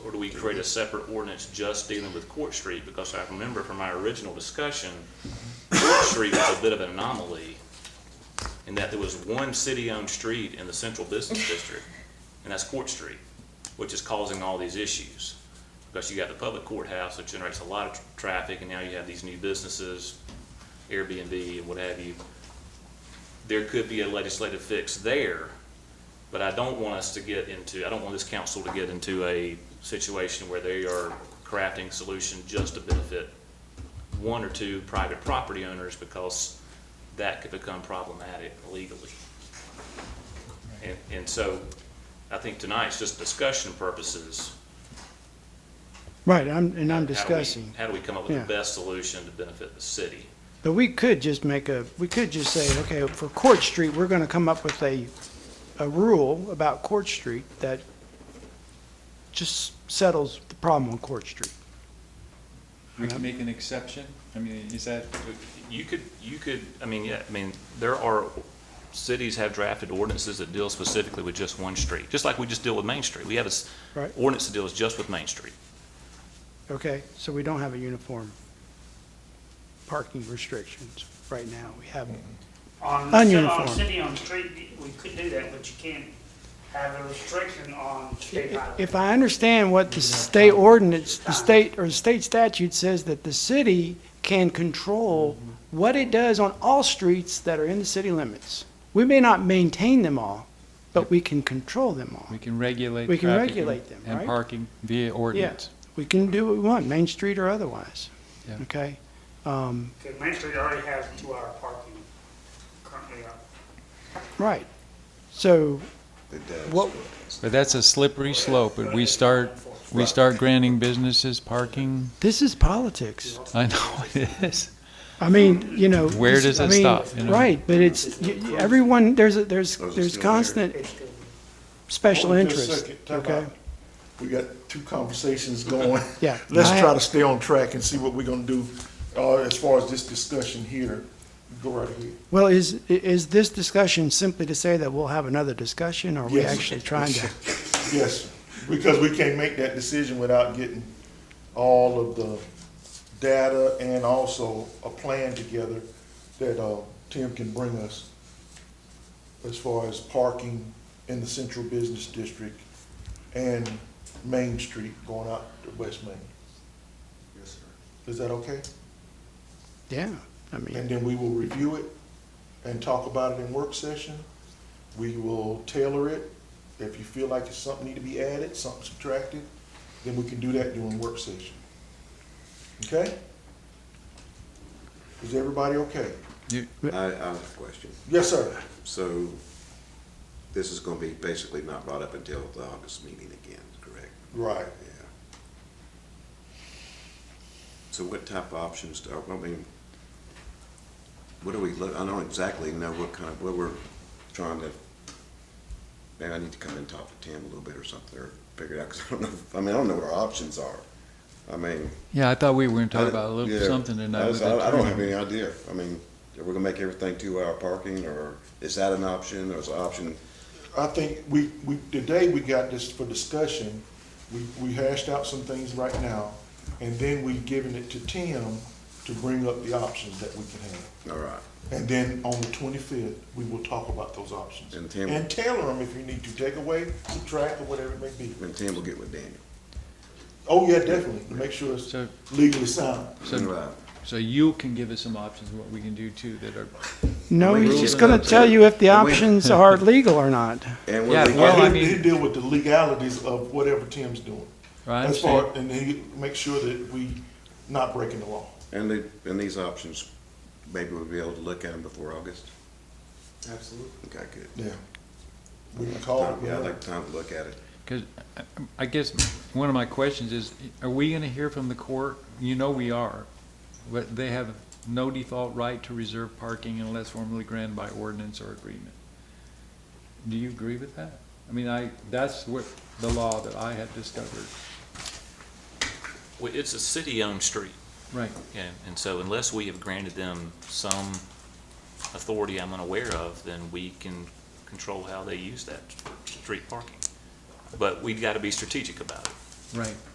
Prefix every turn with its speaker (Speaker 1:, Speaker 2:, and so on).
Speaker 1: Or do we create a separate ordinance just dealing with Court Street? Because I remember from our original discussion, Court Street was a bit of an anomaly in that there was one city-owned street in the central business district, and that's Court Street, which is causing all these issues. Because you got the public courthouse that generates a lot of tr- traffic, and now you have these new businesses, Airbnb and what have you. There could be a legislative fix there, but I don't want us to get into, I don't want this council to get into a situation where they are crafting solutions just to benefit one or two private property owners because that could become problematic legally. And, and so I think tonight's just discussion purposes.
Speaker 2: Right, I'm, and I'm
Speaker 1: How do we-
Speaker 2: discussing.
Speaker 1: How do we come up with the
Speaker 2: Yeah.
Speaker 1: best solution to benefit the city?
Speaker 2: But we could just make a, we could just say, okay, for Court Street, we're gonna come up with a, a rule about Court Street that just settles the problem on Court Street.
Speaker 3: We can make an exception? I mean, is that,
Speaker 1: You could, you could, I mean, yeah, I mean, there are, cities have drafted ordinances that deal specifically with just one street, just like we just deal with Main Street. We have this
Speaker 2: Right.
Speaker 1: ordinance that deals just with Main Street.
Speaker 2: Okay, so we don't have a uniform parking restrictions right now. We have,
Speaker 4: On, on
Speaker 2: Ununiform.
Speaker 4: city-owned street, we could do that, but you can't have a restriction on state highway.
Speaker 2: if I understand what the state ordinance, the state, or the state statute says that the city can control what it does on all streets that are in the city limits. We may not maintain them all, but we can control them all.
Speaker 3: we can regulate
Speaker 2: We can
Speaker 3: traffic
Speaker 2: regulate them,
Speaker 3: And
Speaker 2: right?
Speaker 3: parking via ordinance.
Speaker 2: We can do what we want, Main Street or otherwise,
Speaker 3: Yeah.
Speaker 2: okay? Um,
Speaker 4: Because Main Street already has two-hour parking currently up.
Speaker 2: right. So, what,
Speaker 3: But that's a slippery slope, but we start, we start granting businesses parking,
Speaker 2: this is politics.
Speaker 3: I know it is.
Speaker 2: I mean, you know.
Speaker 3: Where
Speaker 2: this-
Speaker 3: does
Speaker 2: I
Speaker 3: it
Speaker 2: mean,
Speaker 3: stop, you know?
Speaker 2: Right, but it's, y- y- everyone, there's, a- there's,
Speaker 5: Those are
Speaker 2: there's
Speaker 5: still there.
Speaker 2: constant special
Speaker 5: Hold it just a
Speaker 2: interest,
Speaker 5: second. Time
Speaker 2: okay?
Speaker 5: out. We got two conversations going.
Speaker 2: Yeah.
Speaker 5: Let's
Speaker 2: I-
Speaker 5: try to stay on track and see what we're gonna do, uh, as far as this discussion here. Go right ahead.
Speaker 2: Well, is, i- is this discussion simply to say that we'll have another discussion? Or are we
Speaker 5: Yes.
Speaker 2: actually trying to?
Speaker 5: Yes, because we can't make that decision without getting all of the data and also a plan together that, uh, Tim can bring us as far as parking in the central business district and Main Street going out to West Main. Yes, sir. Is that okay?
Speaker 2: Yeah, I mean,
Speaker 5: And then we will review it and talk about it in work session. We will tailor it. If you feel like it's something need to be added, something subtracted, then we can do that during work session. Okay? Is everybody okay?
Speaker 6: I, I have a question.
Speaker 5: Yes, sir.
Speaker 6: So this is going to be basically not brought up until the August meeting again, correct?
Speaker 5: Right.
Speaker 6: Yeah. So what type of options, do- I mean, what do we, look- I don't exactly know what kind of, what we're trying to, maybe I need to come and talk to Tim a little bit or something, or figure it out, because I don't know, I mean, I don't know what our options are. I mean.
Speaker 3: Yeah, I thought we were gonna
Speaker 6: I-
Speaker 3: talk about a little
Speaker 6: yeah.
Speaker 3: something
Speaker 6: I
Speaker 3: tonight. with
Speaker 6: was- I,
Speaker 3: the
Speaker 6: I don't
Speaker 3: attorney.
Speaker 6: have any idea. I mean, are we gonna make everything two-hour parking, or is that an option, or is an option?
Speaker 5: I think we, we, today we got this for discussion. We, we hashed out some things right now, and then we giving it to Tim to bring up the options that we can have.
Speaker 6: All right,
Speaker 5: And then on the twenty-fifth, we will talk about those options.
Speaker 6: And Tim-
Speaker 5: And tailor them if you need to, take away, subtract, or whatever it may be.
Speaker 6: and Tim will get with Daniel.
Speaker 5: Oh, yeah, definitely, to make sure it's
Speaker 3: So-
Speaker 5: legally sound.
Speaker 3: So,
Speaker 6: Right.
Speaker 3: so you can give us some options, of what we can do too, that are,
Speaker 2: no,
Speaker 6: we
Speaker 2: he's
Speaker 6: rules
Speaker 2: just
Speaker 6: it
Speaker 2: gonna
Speaker 6: out,
Speaker 2: tell
Speaker 6: too?
Speaker 2: you if the
Speaker 6: And we-
Speaker 2: options are legal or not.
Speaker 6: And
Speaker 3: Yeah,
Speaker 6: when we
Speaker 3: well,
Speaker 6: get,
Speaker 3: I
Speaker 5: He'll,
Speaker 3: mean-
Speaker 5: he'll deal with the legalities of whatever Tim's doing.
Speaker 3: right?
Speaker 5: As far, and he, make sure that we not breaking the law.
Speaker 6: and the, and these options, maybe we'll be able to look at them before August? Absolutely. Okay, good.
Speaker 5: Yeah. We can call it.
Speaker 6: Yeah, I'd like time to look at it.
Speaker 3: Because uh, I guess one of my questions is, are we going to hear from the court? You know we are, but they have no default right to reserve parking unless formally granted by ordinance or agreement. Do you agree with that? I mean, I, that's what the law that I had discovered.
Speaker 1: Well, it's a city-owned street.
Speaker 3: Right.
Speaker 1: And, and so unless we have granted them some authority I'm unaware of, then we can control how they use that street parking. But we've got to be strategic about it.
Speaker 3: Right.